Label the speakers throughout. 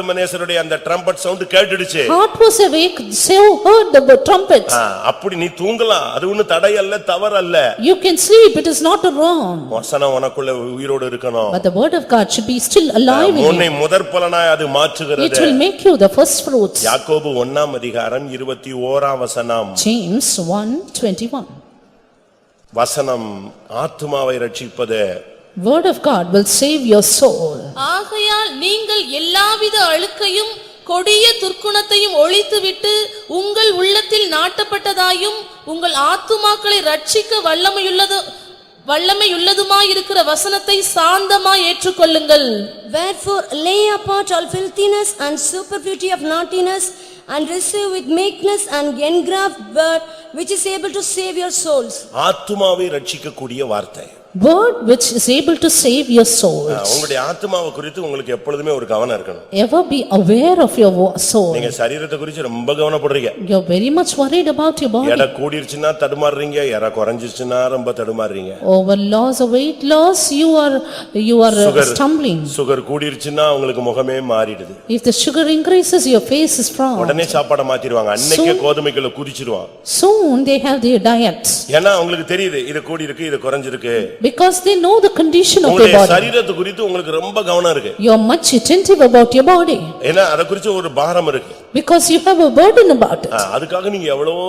Speaker 1: ஆத்துமனேசருடைய அந்த trumpet sound கேட்டுடுச்சு
Speaker 2: Heart was awake, Saul heard the trumpet.
Speaker 1: ஆ, அப்படி நீ தூங்கலாம் அது ஒண்ணு தடையல்ல தவறல்ல
Speaker 2: You can sleep, it is not wrong.
Speaker 1: வசனம் உனக்குள்ள உயிரோடு இருக்கணும்
Speaker 2: But the word of God should be still alive in you.
Speaker 1: உன்னை முதற்பலனாய் அது
Speaker 2: It
Speaker 1: மாற்றுகிறது
Speaker 2: will make you the first fruits.
Speaker 1: யாக்கோபு ஒண்ணாம் அதிகாரம் இருபத்தி ஓராம் வசனம்
Speaker 2: James one twenty-one.
Speaker 1: வசனம் ஆத்துமாவை ரட்சிப்பது
Speaker 2: Word of God will save your soul.
Speaker 3: ஆகையால் நீங்கள் எல்லாவித அழுக்கையும் கொடிய துர்க்குணத்தையும் ஒழித்துவிட்டு உங்கள் உள்ளத்தில் நாட்டப்பட்டதாயும் உங்கள் ஆத்துமாக்களை ரட்சிக்க வல்லமையுள்ளது வல்லமையுள்ளதுமாயிருக்கிற வசனத்தை சாந்தமாய் ஏற்றுக்கொள்ளுங்கள்
Speaker 4: Wherefore lay apart all filthiness and superfluity of naughtiness and receive with meekness and engraft word which is able to save your souls.
Speaker 1: ஆத்துமாவை ரட்சிக்கக்கூடிய வார்த்தை
Speaker 2: Word which is able to save your soul.
Speaker 1: ஆ, உங்களுடைய ஆத்துமாவை குறித்து உங்களுக்கு எப்பொழுதுமே ஒரு கவனம் இருக்கணும்
Speaker 2: Ever be aware of your wo- soul.
Speaker 1: நீங்க சரீரத்தை குறித்து ரொம்ப கவனப்படுறீங்க
Speaker 2: You're very much worried about your body.
Speaker 1: எடை கூடிருச்சுன்னா தடுமாறுறீங்க எடை குறைஞ்சிருச்சுன்னா ரொம்ப தடுமாறுறீங்க
Speaker 2: Over loss of weight loss, you are, you are uh,
Speaker 1: sugar
Speaker 2: stumbling.
Speaker 1: Sugar கூடிருச்சுன்னா உங்களுக்கு முகமே மாறிடுது
Speaker 2: If the sugar increases, your face is frown.
Speaker 1: உடனே சாப்பாடை மாத்திடுவாங்க அன்னைக்கே கோதுமைக்குள்ள குதிச்சிருவான்
Speaker 2: Soon they have their diets
Speaker 1: ஏன்னா அவங்களுக்கு தெரியுது இது கூடியிருக்கு இது குறைஞ்சிருக்கு
Speaker 2: because they know the condition of their
Speaker 1: உங்களுடைய
Speaker 2: body.
Speaker 1: சரீரத்து குறித்து உங்களுக்கு ரொம்ப கவனம் இருக்கு
Speaker 2: You are much attentive about your body
Speaker 1: ஏன்னா அத குறித்து ஒரு பாரம் இருக்கு
Speaker 2: because you have a burden about it.
Speaker 1: ஆ, அதுக்காக நீங்க எவ்வளவோ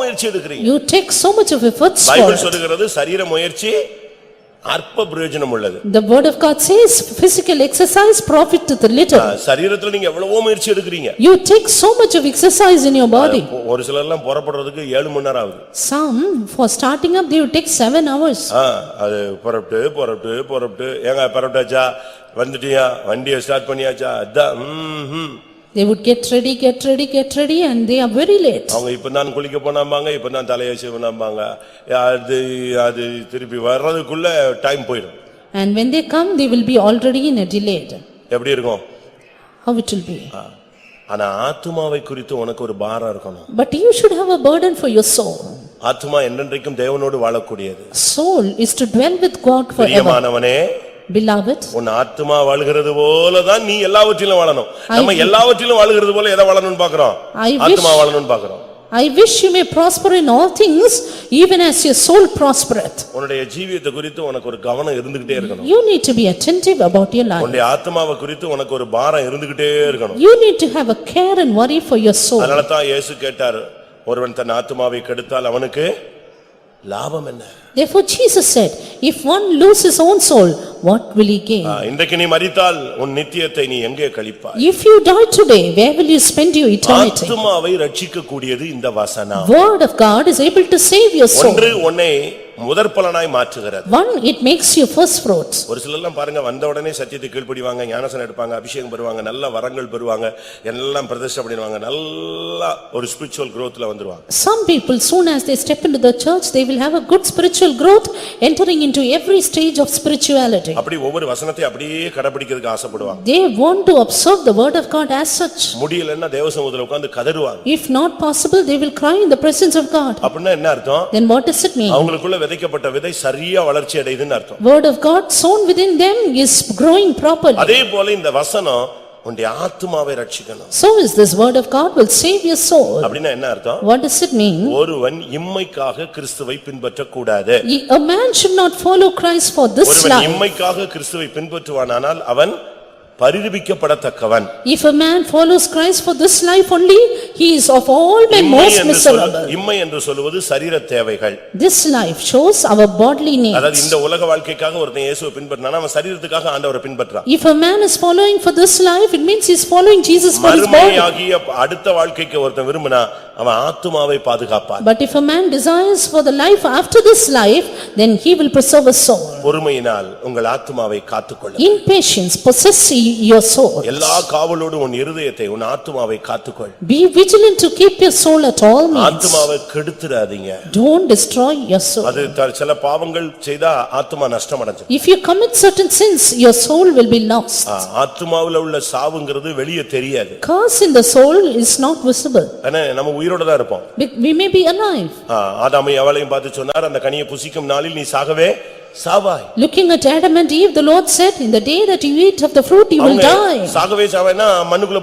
Speaker 1: முயற்சி எடுக்கிறீங்க
Speaker 2: You take so much of efforts for
Speaker 1: Bible
Speaker 2: it.
Speaker 1: சொல்லுகிறது சரீர முயற்சி அற்ப பிரயோஜனம் உள்ளது
Speaker 2: The word of God says physical exercise profit to the
Speaker 1: ah,
Speaker 2: little.
Speaker 1: சரீரத்துல நீங்க எவ்வளவோ முயற்சி எடுக்கிறீங்க
Speaker 2: You take so much of exercise in your body.
Speaker 1: ஒரு சிலர்லாம் புறப்படுறதுக்கு ஏழு மணி நேரம் ஆகுது
Speaker 2: Some for starting up they will take seven hours.
Speaker 1: ஆ, அது புறப்பட்டு புறப்பட்டு புறப்பட்டு ஏங்க புறப்பட்டாச்சா வந்துட்டியா வண்டியை ஸ்டார்ட் பண்ணியாச்சா அதான் ம், ம்.
Speaker 2: They would get ready, get ready, get ready and they are very late.
Speaker 1: அவங்க இப்பதான் குளிக்க போனாம்பாங்க இப்பதான் தலையை சிவனாம்பாங்க அது அது திருப்பி வர்றதுக்குள்ள டைம் போயிடும்
Speaker 2: And when they come, they will be already in a delayed.
Speaker 1: எப்படி இருக்கும்
Speaker 2: How it will be?
Speaker 1: ஆ. ஆனா ஆத்துமாவை குறித்து உனக்கு ஒரு பாரம் இருக்கணும்
Speaker 2: But you should have a burden for your soul.
Speaker 1: ஆத்துமா என்றென்றைக்கும் தேவனோடு வாழக்கூடியது
Speaker 2: Soul is to dwell with God forever.
Speaker 1: பிரியமானவனே
Speaker 2: Beloved,
Speaker 1: உன் ஆத்துமா வாழுகிறது போலதான் நீ எல்லாவற்றிலும் வாழணும் நம்ம எல்லாவற்றிலும் வாழுகிறது போல எதை வாழணும்னு பாக்குறோம்
Speaker 2: I wish-
Speaker 1: ஆத்துமா வாழணும்னு பாக்குறோம்
Speaker 2: I wish you may prosper in all things, even as your soul prospereth.
Speaker 1: உன்னுடைய ஜீவியத்தை குறித்து உனக்கு ஒரு கவனம் இருந்துகிட்டே இருக்கணும்
Speaker 2: You need to be attentive about your life.
Speaker 1: உன்னுடைய ஆத்துமாவை குறித்து உனக்கு ஒரு பாரம் இருந்துகிட்டே இருக்கணும்
Speaker 2: You need to have a care and worry for your soul.
Speaker 1: அதனால தான் இயேசு கேட்டார் ஒருவன் தன் ஆத்துமாவை கெடுத்தால் அவனுக்கு லாபம் என்ன
Speaker 2: Therefore Jesus said, "If one lose his own soul, what will he gain?
Speaker 1: ஆ, இன்றைக்கு நீ மறித்தால் உன் நித்தியத்தை நீ எங்கே கழிப்பாய்
Speaker 2: If you die today, where will you spend your eternity?"
Speaker 1: ஆத்துமாவை ரட்சிக்க கூடியது இந்த வசனம்
Speaker 2: Word of God is able to save your soul.
Speaker 1: ஒன்று உன்னை முதற்பலனாய் மாற்றுகிறது
Speaker 2: One, it makes you first fruits.
Speaker 1: ஒரு சிலர்லாம் பாருங்க வந்த உடனே சத்தியத்தை கீழ்ப்படிவாங்க ஞானசனம் எடுப்பாங்க அபிஷேகம் பெறுவாங்க நல்ல வரங்கள் பெறுவாங்க எல்லாம் பிரதிஷ்டை பண்ணிடுவாங்க நல்லா ஒரு ஸ்பிரிச்சுவல் குரோத்ல வந்துருவாங்க
Speaker 2: Some people, soon as they step into the church, they will have a good spiritual growth, entering into every stage of spirituality.
Speaker 1: அப்படி ஒவ்வொரு வசனத்தை அப்படியே கடைபிடிக்கிறதுக்கு ஆசைப்படுவாங்க
Speaker 2: They want to observe the word of God as such.
Speaker 1: முடியலன்னா தேவசமூகத்துல உட்கார்ந்து கதறுவாங்க
Speaker 2: If not possible, they will cry in the presence of God.
Speaker 1: அப்படின்னா என்ன அர்த்தம்
Speaker 2: Then what does it mean?
Speaker 1: அவங்களுக்குள்ள விதைக்கப்பட்ட விதை சரியா வளர்ச்சி அடையுதுன்னு அர்த்தம்
Speaker 2: Word of God sown within them is growing properly.
Speaker 1: அதே போல இந்த வசனம் உன்னுடைய ஆத்துமாவை ரட்சிக்கணும்
Speaker 2: So is this word of God will save your soul.
Speaker 1: அப்படின்னா என்ன அர்த்தம்
Speaker 2: What does it mean?
Speaker 1: ஒருவன் இம்மைக்காக கிறிஸ்துவை பின்பற்றக்கூடாது
Speaker 2: Ye- A man should not follow Christ for this
Speaker 1: ஒருவன்
Speaker 2: life.
Speaker 1: இம்மைக்காக கிறிஸ்துவை பின்பற்றுவானானால் அவன் பரிதபிக்கப்படத்தக்கவன்
Speaker 2: If a man follows Christ for this life only, he is of all men
Speaker 1: இம்மை
Speaker 2: most
Speaker 1: என்று சொல்ல-
Speaker 2: miserable.
Speaker 1: இம்மை என்று சொல்லுவது சரீர தேவைகள்
Speaker 2: This life shows our bodily
Speaker 1: அதாவது
Speaker 2: needs.
Speaker 1: இந்த உலக வாழ்க்கைக்காக ஒருத்தன் இயேசுவை பின்பற்றினா அவன் சரீரத்துக்காக ஆண்டவரை பின்பற்றான்
Speaker 2: If a man is following for this life, it means he is following Jesus for his body.
Speaker 1: மறுமையாகிய அடுத்த வாழ்க்கைக்கு ஒருத்தன் விரும்பினா அவன் ஆத்துமாவை பாதுகாப்பான்
Speaker 2: But if a man desires for the life after this life, then he will preserve his soul.
Speaker 1: பொறுமையினால் உங்கள் ஆத்துமாவை காத்துக்கொள்ள
Speaker 2: In patience, possess ye- your soul.
Speaker 1: எல்லா காவலோடும் உன் இருதயத்தை உன் ஆத்துமாவை காத்துக்கொள்
Speaker 2: Be vigilant to keep your soul at all means.
Speaker 1: ஆத்துமாவை கெடுத்துறாதீங்க
Speaker 2: Don't destroy your soul.
Speaker 1: அது த- சில பாவங்கள் செய்தா ஆத்துமா நஷ்டம் அடைஞ்சு
Speaker 2: If you commit certain sins, your soul will be lost.
Speaker 1: ஆத்துமாவுல உள்ள சாவுங்கிறது வெளியே தெரியாது
Speaker 2: Curse in the soul is not visible.
Speaker 1: ஆனா நம்ம உயிரோட தான் இருப்போம்
Speaker 2: We we may be alive.
Speaker 1: ஆ, ஆதாமை எவளையும் பார்த்து சொன்னார் அந்த கனியை புசிக்கும் நாளில் நீ சாகவே சாவாய்
Speaker 2: Looking at Adam and Eve, the Lord said, "In the day that you eat of the fruit, you will
Speaker 1: அவங்க
Speaker 2: die."
Speaker 1: சாகவே சாவேன்னா மண்ணுக்குள்ள